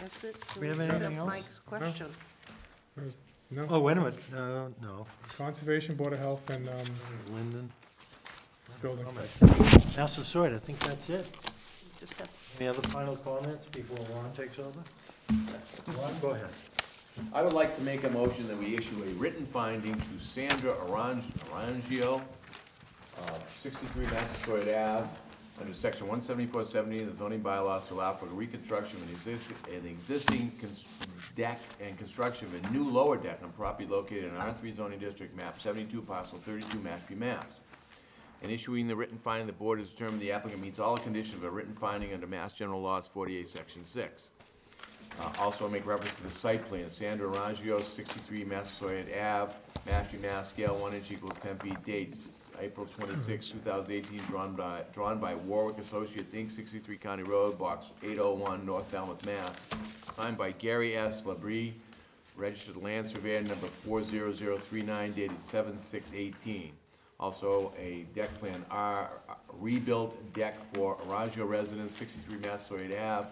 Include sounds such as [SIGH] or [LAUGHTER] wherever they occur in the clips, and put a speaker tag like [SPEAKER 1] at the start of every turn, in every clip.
[SPEAKER 1] that's it. So
[SPEAKER 2] We have
[SPEAKER 1] can
[SPEAKER 2] anything else?
[SPEAKER 1] Mike's question.
[SPEAKER 2] Oh,
[SPEAKER 3] No,
[SPEAKER 2] wait a minute, no, no,
[SPEAKER 3] Conservation, Board of Health, and um,
[SPEAKER 2] Linden.
[SPEAKER 3] Building
[SPEAKER 2] All right.
[SPEAKER 3] Inspector.
[SPEAKER 2] Massasoit, I think that's it.
[SPEAKER 1] Just have
[SPEAKER 2] Any other final comments before Ron takes over? Ron, go ahead.
[SPEAKER 4] I would like to make a motion that we issue a written finding to Sandra Arang- Arangio, uh, 63 Massasoit Ave, under section 17470 of the zoning bylaws to allow for the reconstruction of an existing, an existing cons- deck and construction of a new lower deck on property located in R3 zoning district, map 72, parcel 32, Mashpee, Mass. In issuing the written finding, the board has determined the applicant meets all the conditions of a written finding under Mass General Laws 48, section 6. Uh, Also make reference to the site plan, Sandra Rangio, sixty-three Massasoit Ave, Mashpee, Mass, scale one inch equals ten feet, dates April twenty-six, two thousand eighteen, drawn by, drawn by Warwick Associates, Inc., sixty-three County Road, box eight oh one, North Falmouth, Mass. Signed by Gary S. Labrie, registered land surveyor number four zero zero three nine, dated seven six eighteen. Also, a deck plan, R, rebuilt deck for Aragio residence, sixty-three Massasoit Ave,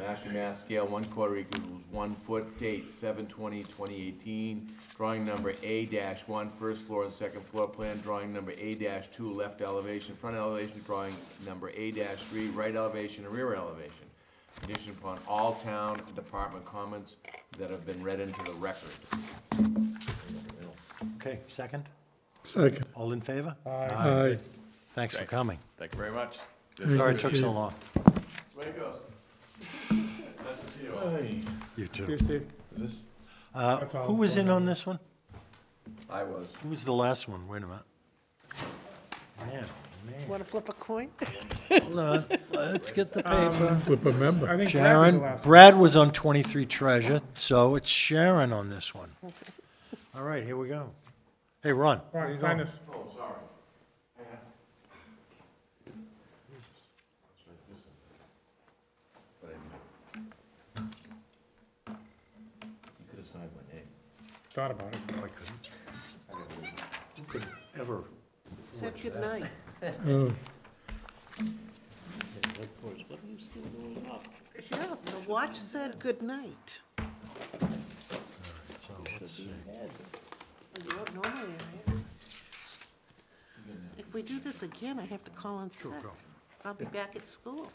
[SPEAKER 4] Mashpee, Mass, scale one quarter equals one foot, date seven twenty, twenty eighteen. Drawing number A dash one, first floor and second floor plan. Drawing number A dash two, left elevation, front elevation. Drawing number A dash three, right elevation and rear elevation. Conditioned upon all town department comments that have been read into the record.
[SPEAKER 2] Okay, second?
[SPEAKER 5] Second.
[SPEAKER 2] All in favor?
[SPEAKER 5] Aye.
[SPEAKER 2] Thanks for coming.
[SPEAKER 4] Thank you very much.
[SPEAKER 2] Sorry it took so long.
[SPEAKER 4] That's the way it goes. [LAUGHS] Nice to see you
[SPEAKER 2] You
[SPEAKER 3] Here,
[SPEAKER 2] too.
[SPEAKER 3] Steve.
[SPEAKER 2] Uh,
[SPEAKER 3] That's all.
[SPEAKER 2] Who was in on this one?
[SPEAKER 4] I was.
[SPEAKER 2] Who was the last one? Wait a minute. Man, man.
[SPEAKER 1] Want to flip a coin? [LAUGHS]
[SPEAKER 2] Hold on. Let's get the paper.
[SPEAKER 5] Flip a member.
[SPEAKER 3] Um, I think Brad was the
[SPEAKER 2] Sharon,
[SPEAKER 3] last one.
[SPEAKER 2] Brad was on 23 Treasure, so it's Sharon on this
[SPEAKER 3] [LAUGHS]
[SPEAKER 2] one. All right, here we go. Hey, Ron.
[SPEAKER 3] All right, sign this.
[SPEAKER 4] Oh, sorry. But I- You could have signed my name.
[SPEAKER 3] Thought about it.
[SPEAKER 5] Oh.
[SPEAKER 2] No, I couldn't. Who could ever?
[SPEAKER 1] Said good night.
[SPEAKER 5] Oh,
[SPEAKER 1] [LAUGHS] Yeah, the watch said good night.
[SPEAKER 2] So let's see.
[SPEAKER 1] You don't normally I ask. If we do this again, I have to call in sick.
[SPEAKER 2] go.
[SPEAKER 1] I'll be back at school.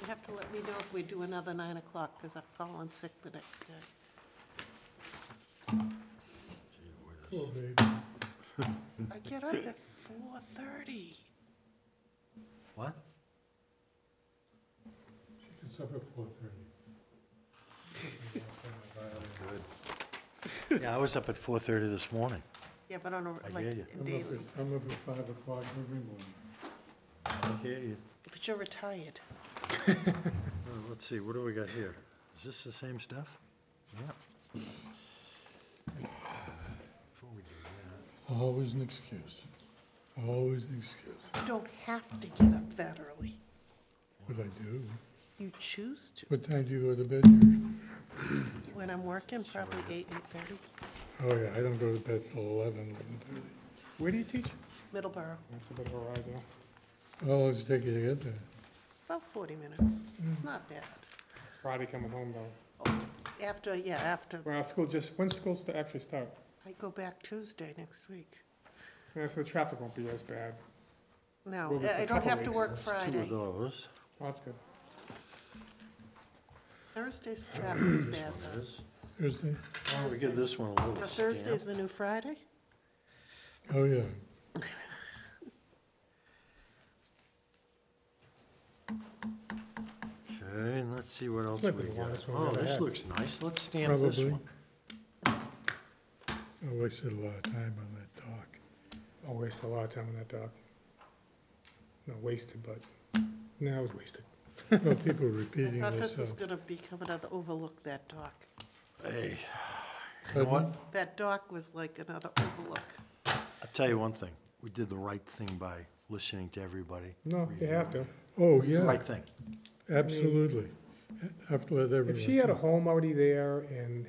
[SPEAKER 1] You have to let me know if we do another nine o'clock, because I'll call in sick the next day.
[SPEAKER 5] poor baby.
[SPEAKER 1] I get up at four thirty.
[SPEAKER 2] What?
[SPEAKER 5] It's up at four thirty.
[SPEAKER 2] [LAUGHS] Yeah, I was up at 4:30 this morning.
[SPEAKER 1] Yeah, but on
[SPEAKER 2] I
[SPEAKER 1] a,
[SPEAKER 2] hear you.
[SPEAKER 1] like,
[SPEAKER 5] I'm up
[SPEAKER 1] daily,
[SPEAKER 5] at, I'm up at five o'clock every morning.
[SPEAKER 2] I hear you.
[SPEAKER 1] but you're retired.
[SPEAKER 2] Well, Uh, Let's see, what do we got here? Is this the same stuff? Yeah. Before we do that,
[SPEAKER 5] Always an excuse. Always an excuse.
[SPEAKER 1] You don't have to get up that early.
[SPEAKER 5] What I do.
[SPEAKER 1] You choose to.
[SPEAKER 5] What time do you go to bed? usually?
[SPEAKER 1] When I'm working, probably eight, eight-thirty,
[SPEAKER 5] Oh, yeah, I don't go to bed till eleven, eleven thirty.
[SPEAKER 3] Where do you teach?
[SPEAKER 1] Middleborough,
[SPEAKER 3] That's a bit of a ride, though.
[SPEAKER 5] How long does it take you to get there?
[SPEAKER 1] about forty minutes.
[SPEAKER 3] Mm.
[SPEAKER 1] It's not bad.
[SPEAKER 3] Friday coming home, though.
[SPEAKER 1] Oh, After, yeah, after,
[SPEAKER 3] Well, school just, when's school sta- actually start?
[SPEAKER 1] I go back Tuesday next week.
[SPEAKER 3] Yeah, so the traffic won't be as bad.
[SPEAKER 1] No,
[SPEAKER 3] Well, it's
[SPEAKER 1] I- I
[SPEAKER 3] a
[SPEAKER 1] don't
[SPEAKER 3] couple
[SPEAKER 1] have to
[SPEAKER 3] weeks.
[SPEAKER 1] work
[SPEAKER 2] Two of
[SPEAKER 1] Friday.
[SPEAKER 2] those.
[SPEAKER 3] Well, that's good.
[SPEAKER 1] Thursday's traffic is bad though.
[SPEAKER 2] This.
[SPEAKER 5] Thursday?
[SPEAKER 2] Why don't we give this one a
[SPEAKER 1] Now
[SPEAKER 2] little
[SPEAKER 1] Thursday's
[SPEAKER 2] stamp?
[SPEAKER 1] the new Friday?
[SPEAKER 5] Oh, yeah.
[SPEAKER 2] Okay, and let's see what else we
[SPEAKER 3] might be the
[SPEAKER 2] got.
[SPEAKER 3] longest one we
[SPEAKER 2] Oh,
[SPEAKER 3] ever
[SPEAKER 2] this
[SPEAKER 3] had.
[SPEAKER 2] looks nice. Let's stamp this
[SPEAKER 5] Probably.
[SPEAKER 2] one.
[SPEAKER 5] Oh, I wasted a lot of time on that dock.
[SPEAKER 3] I wasted a lot of time on that dock. Not wasted, but, no, it was wasted.
[SPEAKER 1] [LAUGHS]
[SPEAKER 5] Well, people
[SPEAKER 1] I
[SPEAKER 5] repeating
[SPEAKER 1] thought this was
[SPEAKER 5] themselves.
[SPEAKER 1] gonna become another overlook, that dock.
[SPEAKER 2] Hey, you know what?
[SPEAKER 1] That dock was like another overlook.
[SPEAKER 2] I'll tell you one thing. We did the right thing by listening to everybody.
[SPEAKER 3] No, you have to.
[SPEAKER 5] Oh, yeah,
[SPEAKER 2] Right thing.
[SPEAKER 5] absolutely. Have to let everyone.
[SPEAKER 3] If she had a home already there and